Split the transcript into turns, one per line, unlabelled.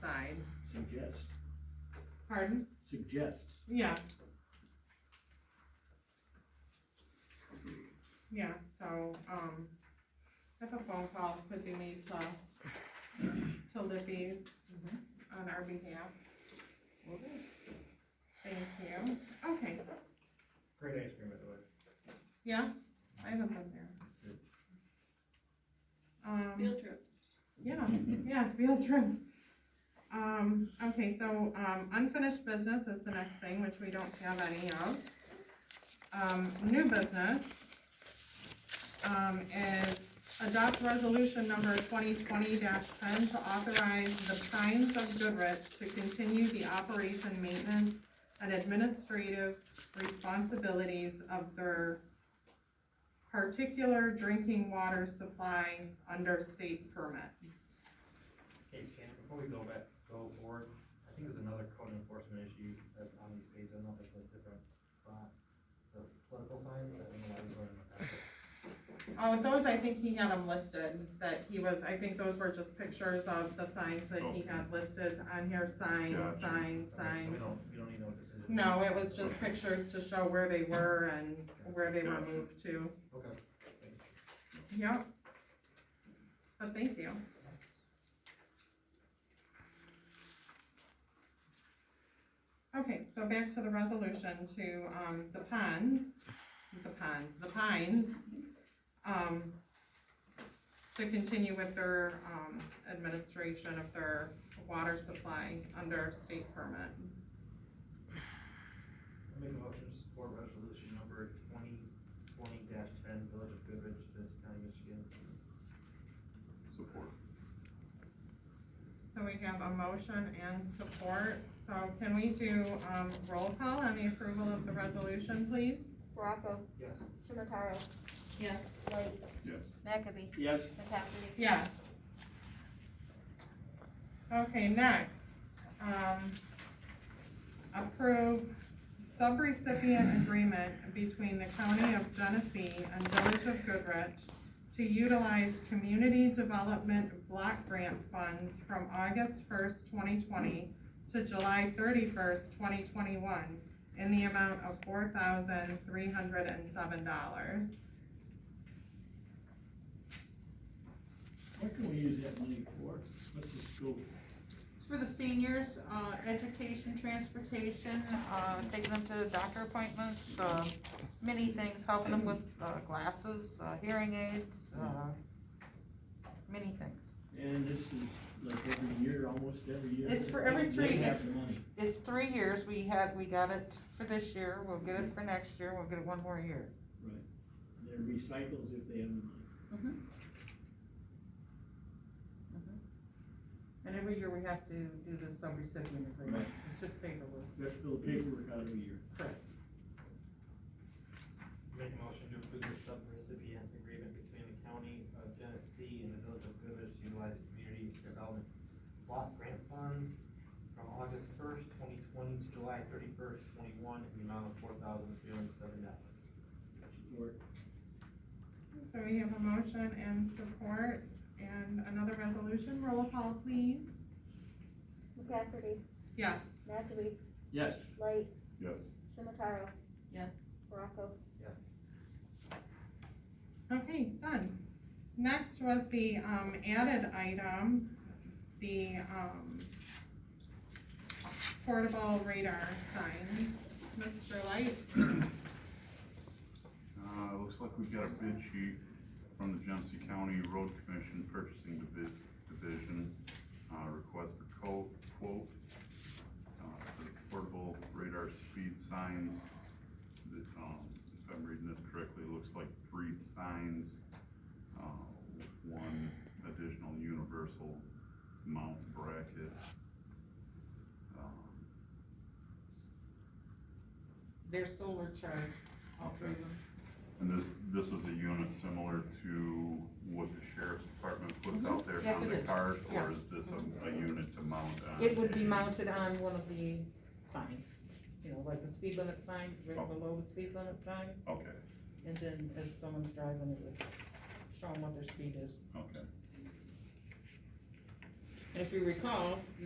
side.
Suggest,
Pardon?
suggest.
Yeah. Yeah, so, um, I have a phone call could be made to, to Libby's on our behalf. Thank you. Okay,
Great ice cream, by the way.
yeah, I haven't been there. Um,
Field trip.
yeah, yeah, field trip. Um, okay, so, um, unfinished business is the next thing, which we don't have any of. Um, new business, um, is adopt resolution number twenty twenty ten to authorize the Primes of Goodrich to continue the operation, maintenance, and administrative responsibilities of their particular drinking water supply under state permit.
Hey, Shannon, before we go back, go forward, I think there's another code enforcement issue that's on these pages, I don't know if it's a different spot. Those political signs, I don't know why we were in the packet.
Oh, those, I think he had them listed, that he was, I think those were just pictures of the signs that he had listed on here, signs,
Gotcha.
signs,
Okay, So we
signs.
don't, we don't need no decision.
No, it was just pictures to show where they were and where they were
Gotcha.
moved to.
Okay.
Yep. But thank you. Okay, so back to the resolution to, um, the ponds, the ponds, the pines, um, to continue with their, um, administration of their water supply under state permit.
I make a motion to support resolution number twenty twenty ten, Village of Goodrich, Vince County, Michigan.
Support.
So we have a motion and support, so can we do, um, roll call on the approval of the resolution, please?
Baraco,
Yes.
Shimataro,
Yes.
Light,
Yes.
McAbey,
Yes.
McCafferty.
Yes. Okay, next, um, approve subrecipient agreement between the County of Genesee and Village of Goodrich to utilize community development block grant funds from August first, twenty twenty to July thirty-first, twenty twenty-one in the amount of four thousand three hundred and seven dollars.
What can we use that money for? What's the scope?
For the seniors, uh, education, transportation, uh, taking them to doctor appointments, uh, many things, helping them with, uh, glasses, uh, hearing aids, uh, many things.
And this is like every year, almost every year.
It's for every three-
They have the money.
It's three years, we had, we got it for this year, we'll get it for next year, we'll get it one more year.
They're recycles if they have the money.
And every year we have to do the sub-recipient agreement, it's just paperwork.
Just fill the paperwork out every year.
Make a motion to approve the sub-recipient agreement between the county of Genesee and the village of Goodrich to utilize community development block grant funds from August first, twenty twenty to July thirty-first, twenty-one, in the amount of four thousand three hundred seven dollars.
Support.
So we have a motion and support and another resolution, roll call please.
McCafferty,
Yes,
McAbey,
Yes.
Light,
Yes.
Shimataro,
Yes.
Baraco,
Yes.
okay, done. Next was the, um, added item, the, um, portable radar signs. Mr. Light,
Uh, looks like we've got a bid sheet from the Genesee County Road Commission Purchasing Divi- Division, uh, request for co- quote, uh, for portable radar speed signs. That, um, if I'm reading this correctly, it looks like three signs, uh, with one additional universal mount bracket. Um,
They're solar charged, all three of them.
And this, this is a unit similar to what the sheriff's department puts out there
Mm-hmm. Yes,
on
it
the
is.
cars?
Yeah. Mm-hmm.
Or is this a, a unit to mount on?
It would be
a-
mounted on one of the signs, you know, like the speed limit sign, right below the speed limit sign,
Okay,
and then as someone's driving, it would show them what their speed is.
okay.
And if you recall,